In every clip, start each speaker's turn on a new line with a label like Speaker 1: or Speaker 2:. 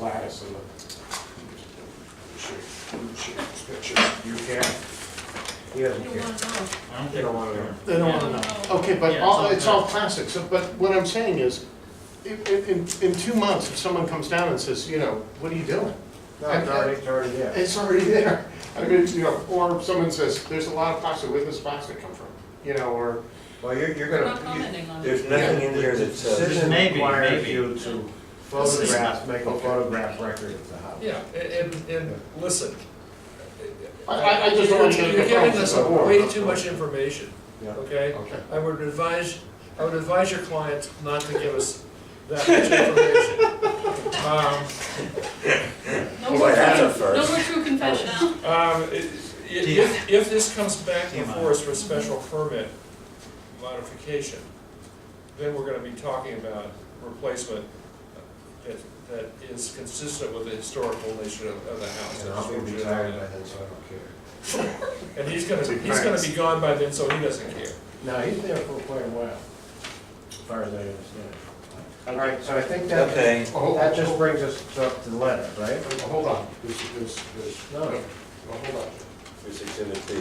Speaker 1: lattice of the. You can, he doesn't
Speaker 2: You
Speaker 1: care.
Speaker 2: want to know.
Speaker 3: I don't think I want to.
Speaker 4: They don't wanna know. Okay, but
Speaker 3: Yeah,
Speaker 4: all,
Speaker 3: it's all
Speaker 4: it's all plastic, so, but what I'm saying is, in, in, in two months, if someone comes down and says, you know, what are you doing?
Speaker 1: No, it's already, it's already there.
Speaker 4: It's already there. I mean, you know, or if someone says, there's a lot of plastic, where does plastic come from? You know, or,
Speaker 1: Well, you're, you're
Speaker 2: We're not
Speaker 1: gonna, you-
Speaker 2: commenting on it.
Speaker 5: There's nothing in here that says,
Speaker 1: decision
Speaker 3: Maybe,
Speaker 1: requires
Speaker 3: maybe.
Speaker 1: you to photograph, make a photograph record of the house.
Speaker 6: Yeah, and, and- and listen.
Speaker 4: I- I, I just don't want to get in the
Speaker 6: You're giving us
Speaker 4: process.
Speaker 6: way too much information,
Speaker 1: Yeah.
Speaker 6: okay?
Speaker 4: Okay.
Speaker 6: I would advise, I would advise your client not to give us that much information. Um,
Speaker 2: No
Speaker 5: Well,
Speaker 2: more
Speaker 5: that's a
Speaker 2: true-
Speaker 5: first.
Speaker 2: No more true confession.
Speaker 6: um, i- i- If, if this comes back
Speaker 3: Yeah.
Speaker 6: before us for special permit modification, then we're gonna be talking about replacement that, that is consistent with the historical nature of, of the house.
Speaker 1: And I'll be retired by then, so I don't care.
Speaker 6: And he's gonna, he's gonna be gone by then, so he doesn't care.
Speaker 1: No, he's there for quite a while, as far as I understand. All right, so I think that,
Speaker 5: Okay.
Speaker 1: that just brings us up to the letter, right?
Speaker 4: Oh, Hold on, there's, there's, there's,
Speaker 1: No.
Speaker 4: well, hold on.
Speaker 5: this exhibit B.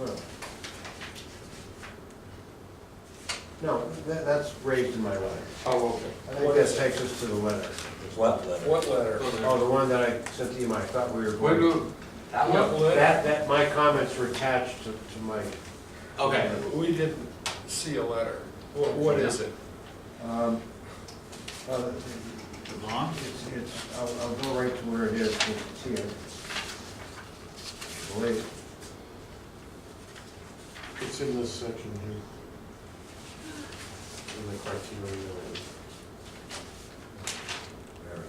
Speaker 1: Well. No, that, that's raised in my letter.
Speaker 4: Oh, okay.
Speaker 1: I think that takes us to the letter.
Speaker 5: What letter?
Speaker 6: What letter?
Speaker 1: Oh, the one that I sent to you, I thought we were. going-
Speaker 4: What do,
Speaker 6: That one?
Speaker 1: That, that, my comments were attached to, to my.
Speaker 3: Okay.
Speaker 6: We didn't see a letter. What, what is it?
Speaker 1: Um, uh,
Speaker 3: Long?
Speaker 1: It's, it's, I'll, I'll go right to where it is, because it's here. Wait,
Speaker 4: it's in this section here. In the criteria.
Speaker 1: there.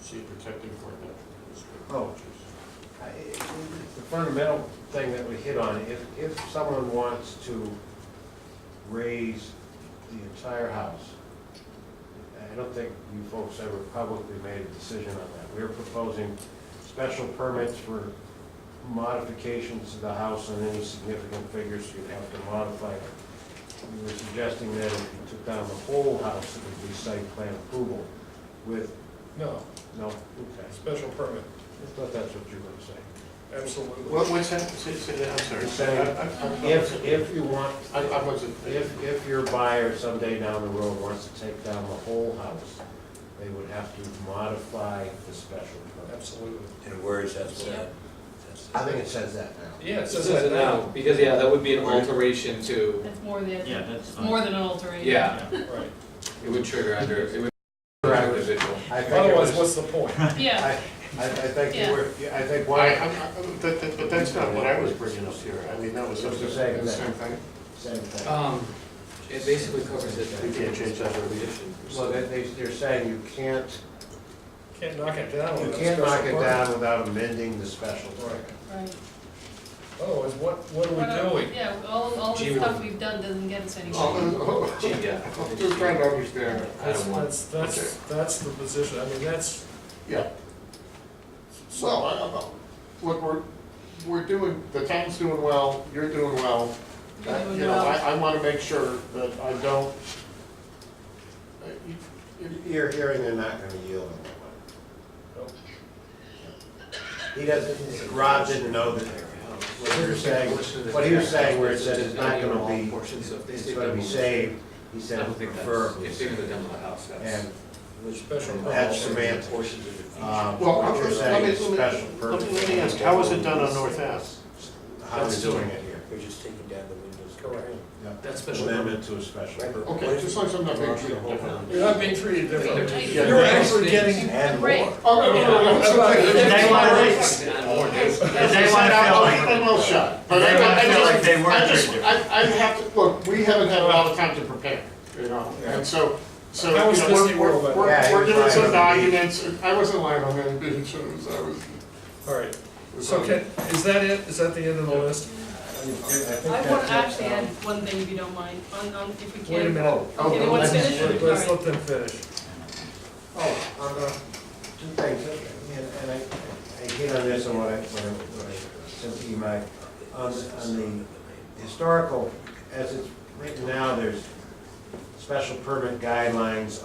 Speaker 4: See, protecting for natural
Speaker 1: Oh. I- The fundamental thing that we hit on, if, if someone wants to raise the entire house, I don't think you folks ever publicly made a decision on that. We're proposing special permits for modifications to the house and any significant figures you'd have to modify. We were suggesting that if you took down the whole house, it would be site plan approval with,
Speaker 6: No,
Speaker 1: no, okay.
Speaker 6: special permit,
Speaker 1: I thought that's what you were gonna say.
Speaker 6: absolutely.
Speaker 4: What, what's that, say, say that, I'm sorry.
Speaker 1: Saying, If, if you want,
Speaker 4: I, I wasn't,
Speaker 1: if, if your buyer someday down the road wants to take down the whole house, they would have to modify the special permit.
Speaker 6: Absolutely.
Speaker 5: And where is that, that? that's-
Speaker 1: I think it says that now.
Speaker 6: Yeah, it
Speaker 7: It
Speaker 6: says
Speaker 7: says
Speaker 6: that
Speaker 7: it now,
Speaker 6: now.
Speaker 7: because, yeah, that would be an alteration to,
Speaker 2: That's more than,
Speaker 3: Yeah,
Speaker 2: it's
Speaker 3: that's fine.
Speaker 2: more than an alteration.
Speaker 7: yeah,
Speaker 3: Yeah.
Speaker 6: Right.
Speaker 7: it would trigger under, it would trigger under visual.
Speaker 1: I think it
Speaker 6: Otherwise,
Speaker 1: was,
Speaker 6: what's the point?
Speaker 2: Yeah,
Speaker 1: I, I I think you
Speaker 2: Yeah.
Speaker 1: were, yeah, I think
Speaker 4: Why,
Speaker 1: why,
Speaker 4: I'm, I'm, that, that, but that's not what I was bringing up here, I mean, that was
Speaker 1: It's
Speaker 4: something,
Speaker 1: the same
Speaker 4: the
Speaker 1: thing.
Speaker 4: same thing.
Speaker 1: same thing.
Speaker 7: Um, it basically covers it.
Speaker 4: We can't change that regulation.
Speaker 1: Well, they, they- they're saying you can't,
Speaker 6: Can't knock it down
Speaker 1: you
Speaker 6: without
Speaker 1: can't
Speaker 6: special
Speaker 1: knock it
Speaker 6: permit.
Speaker 1: down without amending the special
Speaker 6: Right.
Speaker 1: permit.
Speaker 2: right.
Speaker 6: Otherwise, what, what
Speaker 2: We're not-
Speaker 6: are we doing?
Speaker 2: Yeah, all, all the
Speaker 7: Gee,
Speaker 2: stuff
Speaker 7: we-
Speaker 2: we've done doesn't get us anywhere.
Speaker 4: Oh,
Speaker 7: Gee, yeah.
Speaker 4: I'm Just trying to understand,
Speaker 7: I
Speaker 6: That's,
Speaker 7: don't want,
Speaker 6: that's, that's, that's the position. I mean, that's,
Speaker 4: yeah. Well, I don't know, look, we're, we're doing, the town's doing well, you're doing well.
Speaker 2: You're doing
Speaker 4: You know, I,
Speaker 2: well.
Speaker 4: I wanna make sure that I don't. uh, you- you-
Speaker 1: You're hearing they're not gonna yield on that one.
Speaker 6: no.
Speaker 1: He doesn't, Rob didn't know that, what he was saying, what he was saying where it says it's not gonna be,
Speaker 7: Portions, so if they
Speaker 1: it's
Speaker 7: say
Speaker 1: gonna be
Speaker 7: demo,
Speaker 1: saved, he
Speaker 7: I
Speaker 1: said
Speaker 7: don't think that's,
Speaker 1: preferably.
Speaker 7: if they're gonna demo the house, that's.
Speaker 1: And
Speaker 6: special.
Speaker 1: that's
Speaker 6: permit.
Speaker 1: semantic.
Speaker 7: Portions of the feature.
Speaker 1: Um,
Speaker 4: Well,
Speaker 1: What
Speaker 4: I'm-
Speaker 1: you're
Speaker 4: let me,
Speaker 1: saying is
Speaker 4: let
Speaker 1: special
Speaker 4: me, let me-
Speaker 1: purpose.
Speaker 4: let me ask, how was it done on North Ave?
Speaker 1: How we're doing it here.
Speaker 5: We're just taking down the windows.
Speaker 6: Correct.
Speaker 7: That's special.
Speaker 1: Amendment to a special purpose.
Speaker 4: Okay, just like some of the things you
Speaker 6: You're not being treated differently.
Speaker 2: Right.
Speaker 4: Yeah.
Speaker 6: You're actually getting.
Speaker 1: And
Speaker 2: Right.
Speaker 1: more.
Speaker 4: Oh, no, no, no, no, that's okay.
Speaker 6: Yeah.
Speaker 4: That's
Speaker 3: They
Speaker 4: why
Speaker 3: wanna
Speaker 4: I-
Speaker 3: raise-
Speaker 4: As I
Speaker 3: They
Speaker 4: said,
Speaker 3: wanna
Speaker 4: I'll
Speaker 3: feel
Speaker 4: keep my mouth shut. But I-
Speaker 3: They wanna
Speaker 4: I
Speaker 3: feel
Speaker 4: just-
Speaker 3: like they weren't
Speaker 4: I just-
Speaker 3: treated.
Speaker 4: I, I have to, look, we haven't had a lot of time to prepare, you know, and so, so, you
Speaker 6: I was
Speaker 4: know,
Speaker 6: Disney
Speaker 4: we're,
Speaker 6: World,
Speaker 4: we're,
Speaker 6: but-
Speaker 1: Yeah,
Speaker 4: we're we're
Speaker 1: you're
Speaker 4: giving some
Speaker 1: fine.
Speaker 4: documents, I wasn't lying on any beach, it was, I was.
Speaker 6: All right. So can, is that it? Is that the end of the list?
Speaker 2: I want to actually add one thing, if you don't mind, on, on, if we can.
Speaker 6: Wait a minute.
Speaker 1: Oh,
Speaker 2: Anyone
Speaker 1: let's-
Speaker 2: finish?
Speaker 6: Let- Let's let them finish.
Speaker 1: Oh, on the, two things, and- and I, I hit on this on what I, what I, what I sent to you, Mike. On, on the historical, as it's written now, there's special permit guidelines